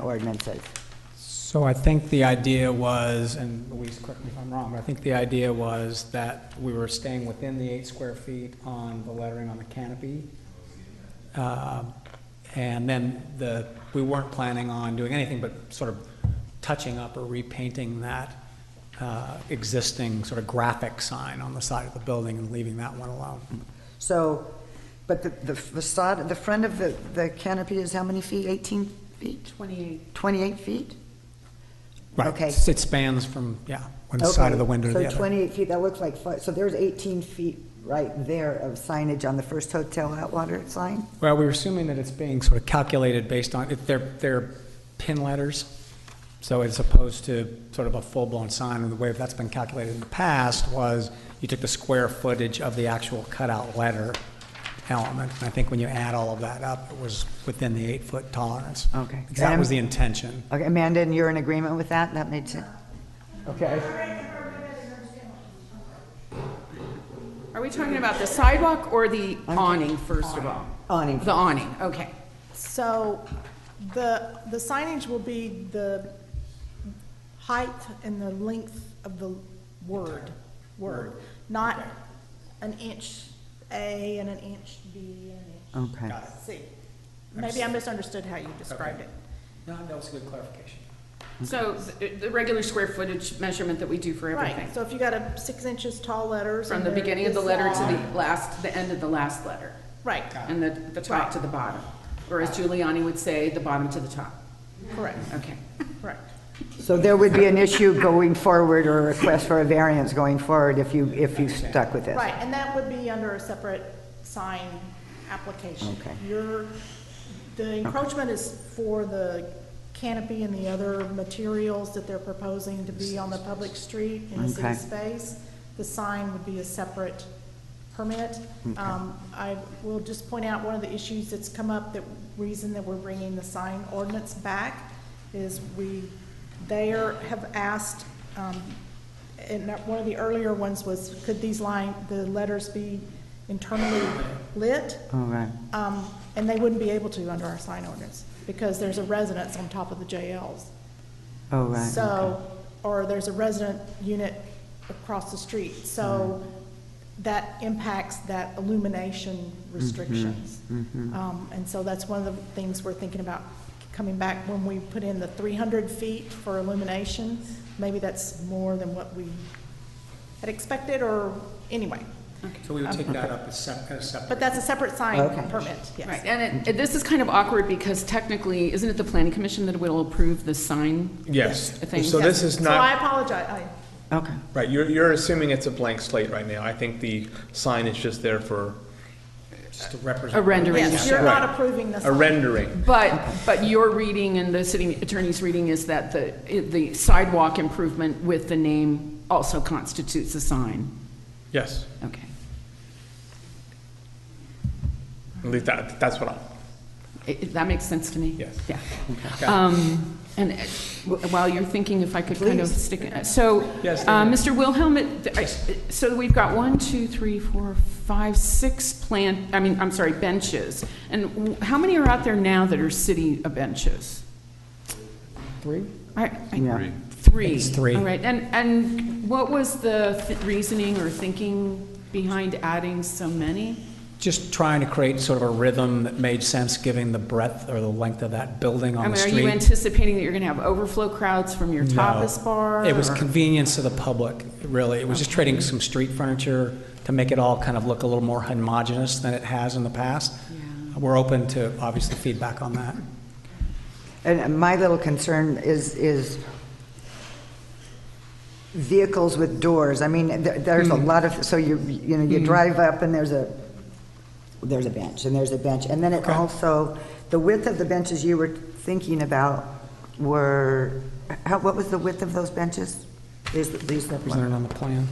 Oh, ordinances. So I think the idea was, and Louise, correct me if I'm wrong, but I think the idea was that we were staying within the eight square feet on the lettering on the canopy. Um, And then the, we weren't planning on doing anything but sort of touching up or repainting that uh, existing sort of graphic sign on the side of the building and leaving that one alone. So, but the the facade, the front of the, the canopy is how many feet? 18 feet? 28. 28 feet? Right, Okay. It spans from, yeah, one side of the Okay, window to the So other. 28 feet, that looks like, fi- so there's 18 feet right there of signage on the first Hotel Atwater sign? Well, we were assuming that it's being sort of calculated based on, if they're, they're pin letters, so as opposed to sort of a full-blown sign, and the way that's been calculated in the past was you took the square footage of the actual cutout letter element, and I think when you add all of that up, it was within the eight-foot tolerance. Okay. Because That was the intention. Okay, Amanda, and you're in agreement with that? That made sense? Okay. Are we talking about the sidewalk or the awning, first of all? Awning. The awning, okay. So the, the signage will be the height and the length of the word, word, not an inch A and an inch B and an Okay. Oh. inch C. Maybe I misunderstood how you described it. No, that was a good clarification. So the, the regular square footage measurement that we do for everything. Right, so if you got a six inches tall letters. From and the they're beginning of the this letter to long- the last, the end of the last letter. Right, And the, the top to the bottom. Or as Giuliani would say, the bottom to the top. correct, Okay. correct. So there would be an issue going forward or a request for a variance going forward if you, if you stuck with this? Right, and that would be under a separate sign application. Okay. Your, the encroachment is for the canopy and the other materials that they're proposing to be on the public street in a Okay. city space. The sign would be a separate permit. Um, I will just point out, one of the issues that's come up, the reason that we're bringing the sign ordinance back is we, they are, have asked, um, and that- one of the earlier ones was, could these line, the letters be internally lit? All right. Um, and they wouldn't be able to under our sign ordinance, because there's a residence on top of the JLs. Oh, right. okay. So, or there's a resident unit across the street, so Mm-hmm. that impacts that illumination restrictions. Mm-hmm. Um, and so that's one of the things we're thinking about coming back when we put in the three hundred feet for illumination. Maybe that's more than what we had expected, or, anyway, Um, So we would take that up as sep- as separate. but that's a separate sign Okay. permit, yes. Right, and it- it, this is kind of awkward because technically, isn't it the planning commission that will approve the sign? Yes, Thing. so this is So I not, apologize, I, Okay. right, you're, you're assuming it's a blank slate right now. I think the sign is just there for Just to represent. A rendering. yes, you're not Right. approving the a sign. rendering. But, but your reading and the city attorney's reading is that the, the sidewalk improvement with the name also constitutes a sign. Yes, Okay. at least that, that's what I'm, I- I- That makes sense to me? Yes. Yeah. Um, And uh, w- while you're thinking, if I could kind of stick, it- so, Yes, uh, David. Mr. Wilhelm, it- th- I- so we've got one, two, three, four, five, six plant, I mean, I'm sorry, benches. And w- how many are out there now that are city uh, benches? Three? I- I- Yeah. Three. It's three. All right, and, and what was the th- reasoning or thinking behind adding so many? Just trying to create sort of a rhythm that made sense, given the breadth or the length of that building on I the mean, are street. you anticipating that you're going to have overflow crowds from your tapas No. bar? It was or- convenience to the public, really. It was just trading some street furniture to make it all kind of look a little more homogeneous than it has in the past. Yeah. We're open to, obviously, feedback on that. And my little concern is, is vehicles with doors. I mean, there- there's a lot of, so you, you know, you drive up and there's a, there's a bench, and there's a bench. And then it Okay. also, the width of the benches you were thinking about were, how, what was the width of those benches? Is, is that one? Presented on the plan.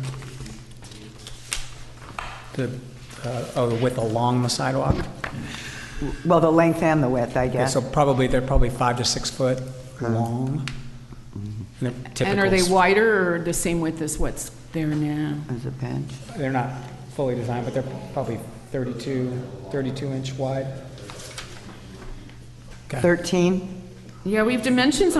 The, uh, oh, the width along the sidewalk? Well, the length and the width, I Yeah, guess. So probably, they're probably five to six foot long. And they're And are they typical- wider or the same width as what's there now? As a bench. They're not fully designed, but they're probably 32, 32 inch wide. Okay. 13? Yeah, we have dimensions